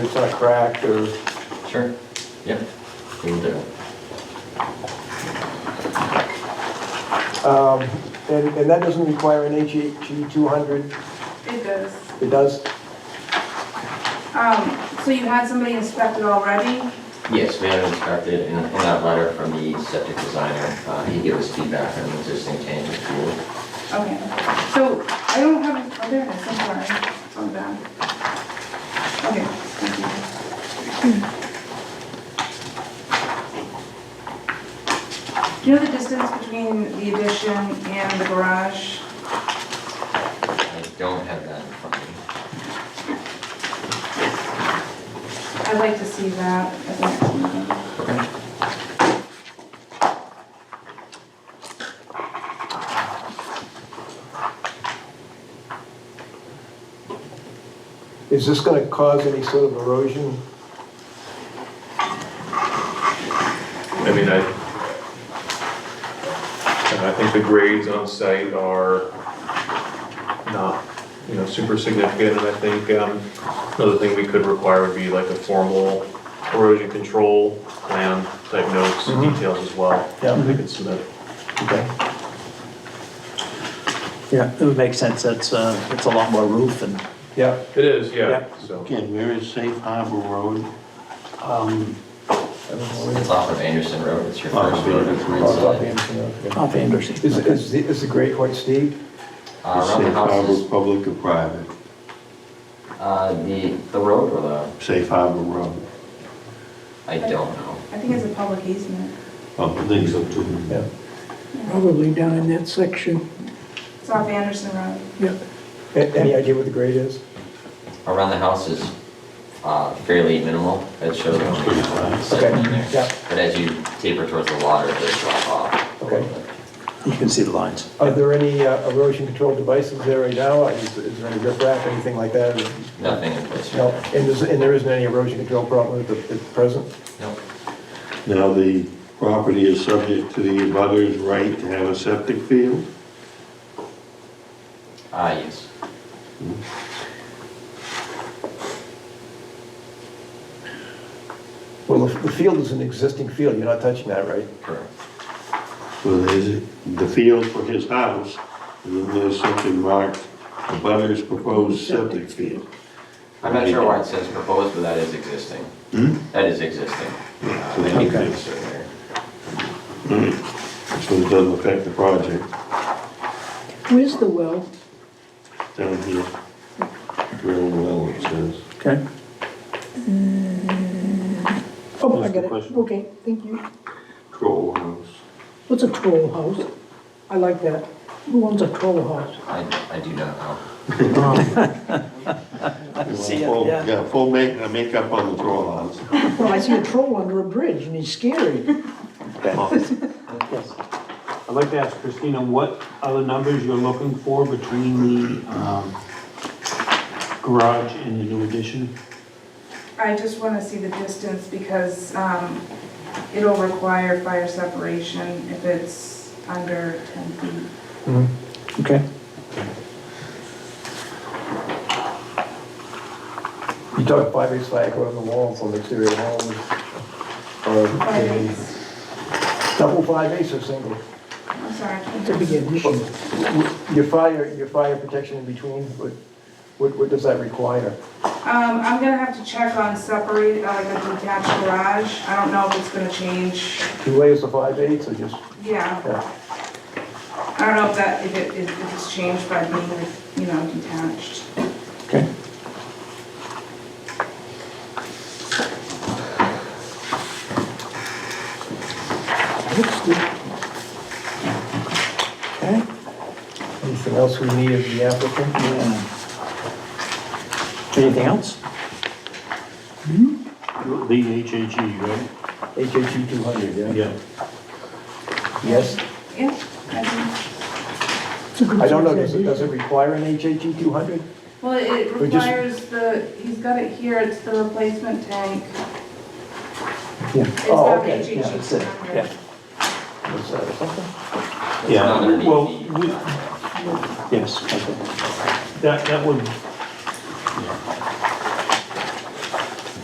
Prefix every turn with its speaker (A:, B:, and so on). A: It's not cracked or,
B: Sure, yep, we will do.
A: um, and, and that doesn't require an HHG 200,
C: It does.
A: it does?
C: Um, so you had somebody inspect it already?
B: Yes, we had it inspected in, in that letter from the septic designer, uh, he gave us feedback on the existing tank and pool.
C: Okay. So I don't have, it- oh, there it is, I'm sorry. It's on the back. Okay, thank you. Do you know the distance between the addition and the garage?
B: I don't have that in front of me.
C: I'd like to see that at the next meeting.
A: Is this gonna cause any sort of erosion?
D: I mean, I, and I think the grades on site are not, you know, super significant, and I think, um, another thing we could require would be like a formal erosion control plan type notes and
E: Mm-hmm.
D: details as well.
F: Yeah.
D: They could submit.
F: Okay. Yeah, it would make sense, that's, uh, it's a lot more roof and,
A: Yeah.
D: It is, yeah,
F: Yeah.
D: so.
G: Again, where is Safe Harbor Road? Um,
B: It's off of Anderson Road, it's your
G: Off
B: first
G: of
B: road
G: Anderson
B: from
G: Road.
B: inside.
F: off Anderson.
A: Is, is, the- is the Great White Steep?
B: Uh, around the
G: Safe Harbor,
B: houses,
G: public or private?
B: uh, the, the road or the,
G: Safe Harbor Road.
B: I don't know.
C: I think it's a public easement.
G: Oh, I think so too.
A: Yeah.
H: Probably down in that section,
C: It's off Anderson Road.
H: yeah.
A: A- Any idea what the grade is?
B: Around the house is, uh, fairly minimal, it shows
G: Pretty
B: only
G: flat.
B: seven in
A: Okay, yeah.
B: there. But as you taper towards the water, it does drop off. a
A: Okay.
B: little bit.
F: You can see the lines.
A: Are there any uh, erosion control devices there right now? Is, is there any riprap, anything like that?
B: Nothing in place.
A: No, and there's, and there isn't any erosion control problem at the, at the present?
B: Nope.
G: Now, the property is subject to the abutter's right to have a septic field?
B: Ah, yes.
A: Well, the the field is an existing field, you're not touching that, right?
B: Correct.
G: Well, there's the field for his house, and then there's something marked, abutter's proposed septic field.
B: I'm not sure why it says proposed, but that is existing.
G: Hmm?
B: That is existing.
G: Yeah,
B: Uh,
G: so they-
B: because it's in there.
G: So it doesn't affect the project
H: Where's the well?
G: down here. Real well, it says.
F: Okay.
H: Oh, I
G: That's the
H: got it.
G: question.
H: Okay, thank you.
G: Troll house.
H: What's a troll house? I like that. Who owns a troll house?
B: I, I do not know.
F: See it,
G: Full-
F: yeah.
G: Oh, Yeah, full make, uh, makeup on the troll house.
H: Well, I see a troll under a bridge and he's scary.
F: Yes.
E: I'd like to ask Christina, what other numbers you're looking for between the um, garage and the new addition?
C: I just want to see the distance because um, it'll require fire separation if it's under 10 feet.
A: Mm-hmm.
F: Okay.
A: You talk five eighths flag on the walls, on the exterior walls, or
C: Five
A: maybe
C: eighths.
A: Um, double five eighths or single?
C: I'm sorry, I can't
H: It's a big addition.
A: Your fire, your fire protection in between, what, what, what does that require?
C: Um, I'm gonna have to check on separate, uh, like a detached garage. I don't know if it's gonna change.
A: Two layers of five eighths or just, uh,
C: Yeah,
A: yeah,
C: I don't know if that, if it, if it's changed by being, you know, detached.
F: Okay.
H: Looks good.
F: Okay.
A: anything else we need of the applicant?
F: Yeah. Anything else?
E: The HHE, right?
A: HHE two hundred, yeah?
E: Yeah.
A: Yes?
C: Yeah, I think,
H: It's a good
A: I don't know,
H: size
A: does it, does
H: addition.
A: it require an HHE two hundred?
C: well, it
A: We just-
C: requires the, he's got it here, it's the replacement tank.
F: Yeah.
C: It's
A: Oh,
C: not
A: okay,
C: HHE
F: Yeah, that's it, yeah.
A: Is that or something?
B: It's
E: Yeah,
B: not underneath
E: well,
B: the-
E: we-
F: Yes, okay.
E: That, that would,